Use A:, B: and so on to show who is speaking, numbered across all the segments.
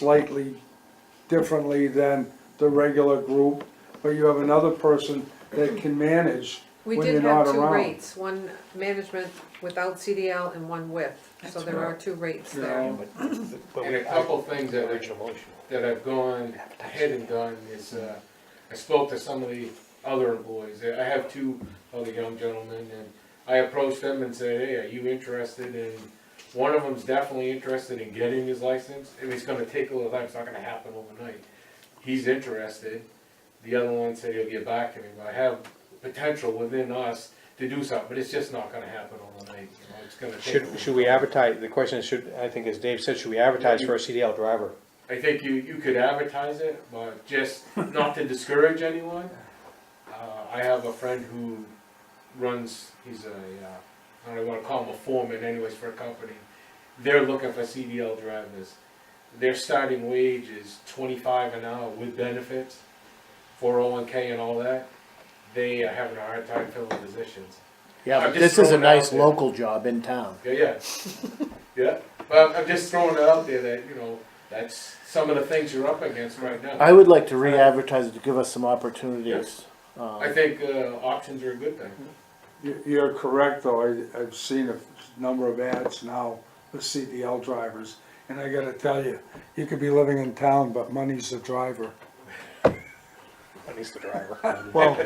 A: slightly differently than the regular group, but you have another person that can manage
B: We
A: when
B: did
A: you're not
B: have
A: around.
B: two rates, one management without CDL and one with, so
C: That's
B: there are two rates there.
A: Yeah.
D: And a couple things that we- that I've gone ahead and done is, uh, I spoke to some of the other employees, I have two other young gentlemen, and I approached them and said, hey, are you interested in, one of them's definitely interested in getting his license, and it's gonna take a little time, it's not gonna happen overnight. He's interested, the other one said he'll get back to me, but I have potential within us to do something, but it's just not gonna happen overnight, you know, it's gonna take. a
E: Should,
D: little
E: should we
D: time.
E: advertise, the question is, should, I think as Dave said, should we advertise for a CDL driver?
D: I think you, you could advertise it, but just not to discourage anyone. Uh, I have a friend who runs, he's a, uh, I don't wanna call him a foreman anyways for a company. They're looking for CDL drivers. Their starting wage is twenty-five an hour with benefits, four oh one K and all that. They are having a hard time filling positions.
F: Yeah,
D: I'm
F: but
D: just
F: this is a
D: throwing it out
F: nice
D: there.
F: local job in town.
D: Yeah, yeah. Yeah, but I'm just throwing it out there that, you know, that's some of the things you're up against right now.
F: I would like to re-advertise it to give us some opportunities. Um,
D: I think uh, options are a good thing.
A: You- You're correct, though, I, I've seen a number of ads now for CDL drivers, and I gotta tell you, you could be living in town, but money's the driver.
E: At least the driver.
F: Well,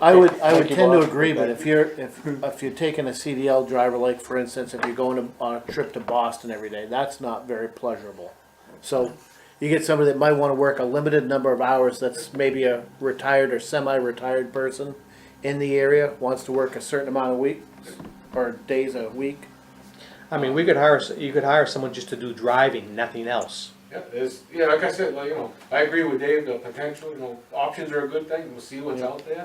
F: I would, I would tend to agree, but if you're, if, if you're taking a CDL driver, like for instance, if you're going to- on a trip to Boston every day, that's not very pleasurable. So you get somebody that might wanna work a limited number of hours, that's maybe a retired or semi-retired person in the area, wants to work a certain amount of weeks or days a week.
E: I mean, we could hire, s- you could hire someone just to do driving, nothing else.
D: Yeah, there's, yeah, like I said, like, you know, I agree with Dave, the potential, you know, options are a good thing, we'll see what's out there.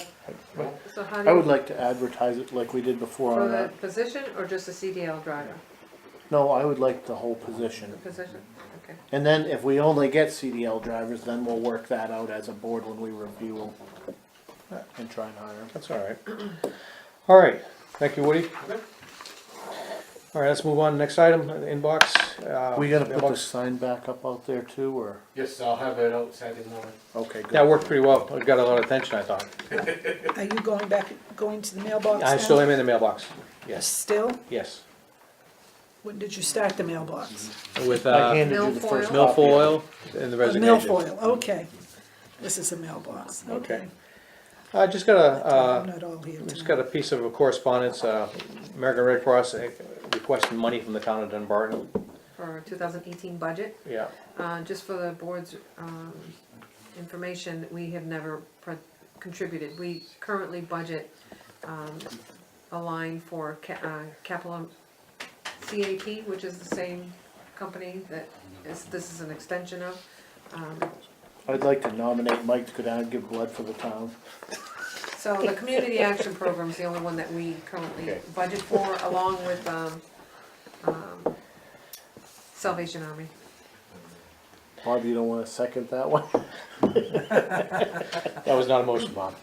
B: So how do
F: I would
B: you,
F: like to advertise it like we did before
B: for
F: on
B: the
F: that.
B: position or just a CDL driver,
F: No, I would like the whole position.
B: the position, okay.
F: And then if we only get CDL drivers, then we'll work that out as a board when we review them and try and hire them.
E: That's all right. All right, thank you, Woody.
D: Okay.
E: All right, let's move on, next item, inbox. uh,
F: We gotta put the
E: mailbox.
F: sign back up out there too, or,
D: Yes, I'll have it out Saturday morning.
F: okay,
E: That
F: good.
E: worked pretty well, it got a lot of attention, I thought.
C: Are you going back, going to the mailbox now?
E: I still am in the mailbox, yes,
C: Still?
E: yes.
C: When did you start the mailbox?
E: With,
F: I
E: uh,
F: handed you the first
B: Milfoil.
F: copy.
E: milfoil and the
C: A
E: resignation.
C: Milfoil, okay. This is a mailbox, okay.
E: Okay. I just got a, uh,
C: I'm not all here
E: Just
C: tonight.
E: got a piece of correspondence, uh, American Red Cross uh, requesting money from the town of Dunbarton,
B: For two thousand eighteen budget,
E: yeah.
B: uh, just for the board's, um, information, we have never pro- contributed. We currently budget, um, a line for ca- uh, capital CAP, which is the same company that is, this is an extension of. Um,
F: I'd like to nominate Mike to go down and give blood for the town.
B: So the community action program's the only one that we currently
E: Okay.
B: budget for, along with, um, um, Salvation Army.
F: Bob, you don't wanna second that one?
E: That was not a motion, Bob.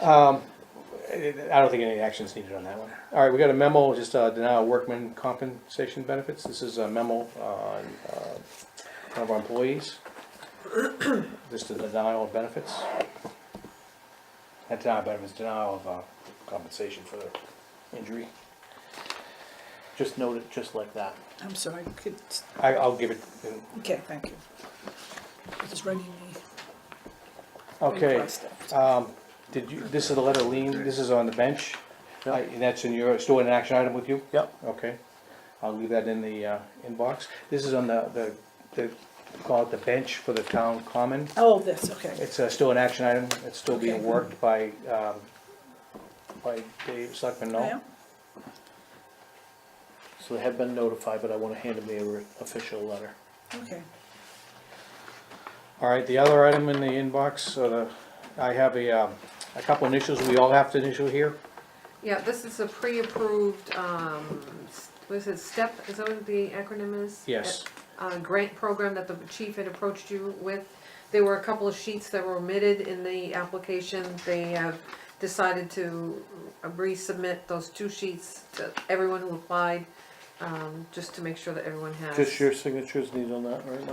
E: Um, I I don't think any action's needed on that one. All right, we got a memo, just uh, denial of workman compensation benefits. This is a memo on uh, one of our employees. Just a denial of benefits. Not denial of benefits, denial of uh, compensation for the injury.
F: Just note it, just like that.
C: I'm sorry, could,
E: I, I'll give it, in-
C: okay, thank you. Just running the.
E: okay.
C: request up.
E: Um, did you, this is the letter lean, this is on the bench?
F: Yeah.
E: I- And that's in your, still an action item with you?
F: Yep,
E: Okay, I'll leave that in the uh, inbox. This is on the, the, the, call it the bench for the town common.
C: Oh, this, okay,
E: It's uh, still an action item, it's still being
C: Okay.
E: worked by, um, by Dave Selectman
C: yeah,
E: Knoll.
F: so they have been notified, but I wanna hand them the re- official letter.
C: okay.
E: All right, the other item in the inbox, uh, the- I have a, um, a couple initials, we all have to initial here.
B: Yeah, this is a pre-approved, um, s- what is it, STEP, is that what the acronym is?
E: Yes,
B: uh, grant program that the chief had approached you with. There were a couple of sheets that were omitted in the application. They have decided to resubmit those two sheets to everyone who applied. Um,
G: um, just to make sure that everyone has.
B: Just your signatures needed on that, right, Mike?